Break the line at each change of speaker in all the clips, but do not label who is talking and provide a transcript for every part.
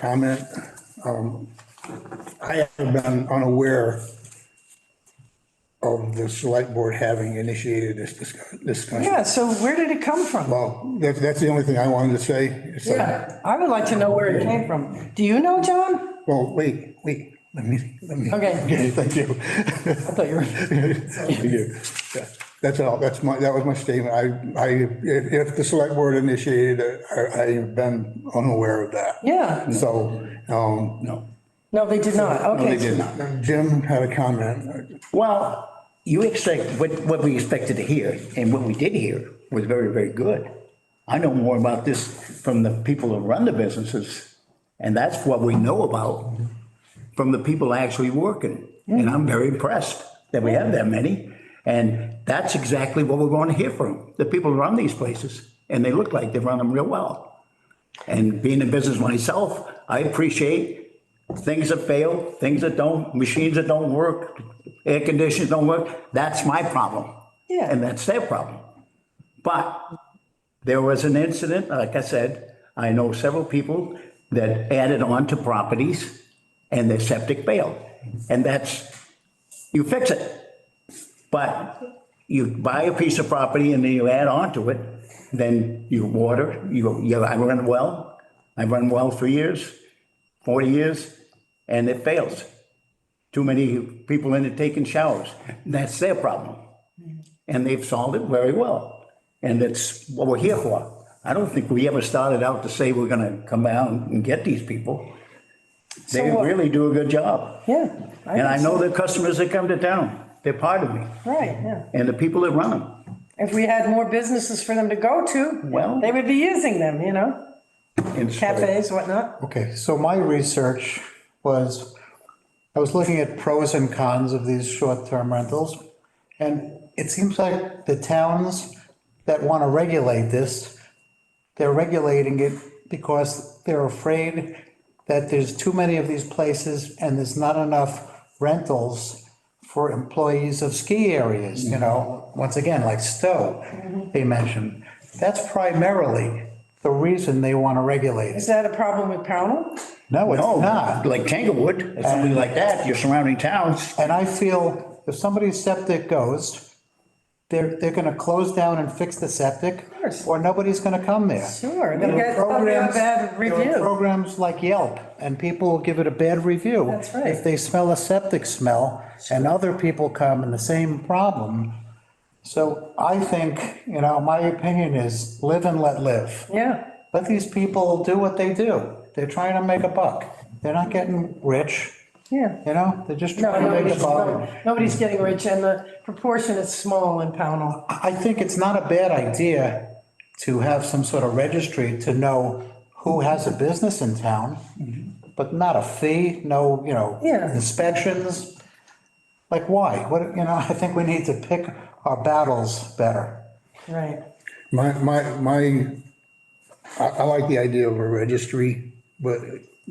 comment. Um, I have been unaware of the select board having initiated this discuss- discussion.
Yeah, so where did it come from?
Well, that's, that's the only thing I wanted to say. It's like,
Yeah, I would like to know where it came from. Do you know, John?
Well, wait, wait, let me, let me.
Okay.
Thank you.
I thought you were,
Thank you. Yeah, That's all, that's my, that was my statement. I, I, if if the select board initiated it, I, I've been unaware of that.
yeah.
So, um. No.
No, they did not.
They
Okay.
did not. Jim had a comment.
Well, you expect, what, what we expected to hear, and what we did hear was very, very good. I know more about this from the people who run the businesses, and that's what we know about from the people actually working. And I'm very impressed that we have that many. And that's exactly what we want to hear from, the people who run these places, and they look like they run them real well. And being in business myself, I appreciate things that fail, things that don't, machines that don't work, air conditioners don't work. That's my problem.
Yeah.
And that's their problem. But there was an incident, like I said, I know several people that added on to properties and their septic failed. And that's, you fix it. But you buy a piece of property and then you add on to it, then you water, you, you, I run a well, I run well for years, forty years, and it fails. Too many people in it taking showers. That's their problem. And they've solved it very well. And it's what we're here for. I don't think we ever started out to say we're gonna come out and get these people. They
So what-
really do a good job.
Yeah.
And I
guess-
know the customers that come to town, they're part of me,
Right, yeah.
and the people that run them.
If we had more businesses for them to go to,
Well-
they would be using them, you know,
And so-
cafes, whatnot.
Okay, so my research was, I was looking at pros and cons of these short-term rentals. And it seems like the towns that want to regulate this, they're regulating it because they're afraid that there's too many of these places and there's not enough rentals for employees of ski areas, you know, once again, like Stowe, they mentioned. That's primarily the reason they want to regulate it.
Is that a problem with Pownell?
No, it's
No,
not.
like Tanglewood, or something like that, your surrounding towns,
And I feel if somebody's septic goes, they're, they're gonna close down and fix the septic.
course.
Or nobody's gonna come there.
Sure, they'll
There
get- they'll
were
get a
programs-
bad
there were
review.
Programs like Yelp, and people will give it a bad review.
That's right.
If they smell a septic smell, and other people come and the same problem. So I think, you know, my opinion is live and let live.
Yeah.
Let these people do what they do. They're trying to make a buck. They're not getting rich.
Yeah.
You know, they're just
No,
trying to make a
nobody's,
buck.
no- nobody's getting rich and the proportion is small in Pownell.
I think it's not a bad idea to have some sort of registry to know who has a business in town, but not a fee, no, you know,
Mm-hmm. Yeah.
inspections. Like, why? What, you know, I think we need to pick our battles better.
Right.
My, my, my, I, I like the idea of a registry, but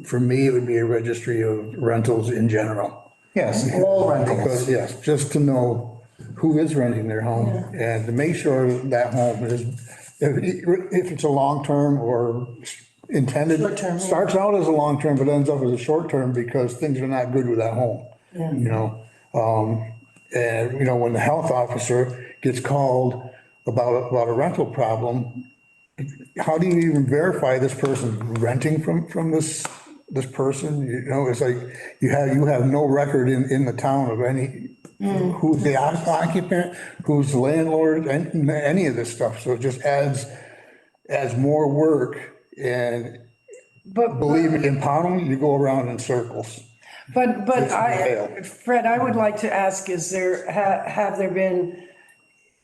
for me, it would be a registry of rentals in general.
Yes, all rentals.
Because, yes, just to know who is renting their home and to make sure that home is, if, if it's a long-term or intended.
Short-term, yeah.
Starts out as a long-term, but ends up as a short-term because things are not good with that home. You know, um, and, you know, when the health officer gets called about, about a rental problem, how do you even verify this person's renting from, from this, this person? You know, it's like, you have, you have no record in, in the town of any, who's the occupant, who's the landlord, and any of this stuff. So it just adds, adds more work. And
But.
believe me, in Pownell, you go around in circles.
But, but I,
fail.
Fred, I would like to ask, is there, ha- have there been,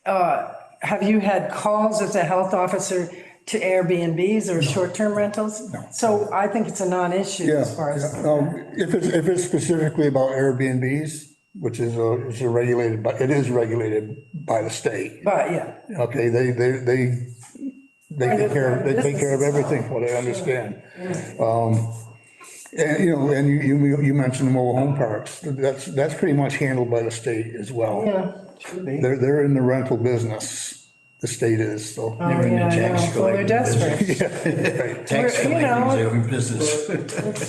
uh, have you had calls as a health officer to Airbnbs or short-term rentals? No. So I think it's a non-issue
Yeah.
as far as,
Um, If it's, if it's specifically about Airbnbs, which is a, is a regulated, but it is regulated by the state.
but yeah,
Okay, they, they, they, they take care, they take care of everything, what I understand. Um, And, you know, and you, you, you mentioned mobile home parks, that's, that's pretty much handled by the state as well.
yeah.
They're, they're in the rental business. the state is, so.
Oh, yeah, I know.
tax
Well, they're
collector.
desperate.
Right.
Tax
We're- you know,
collecting is every business.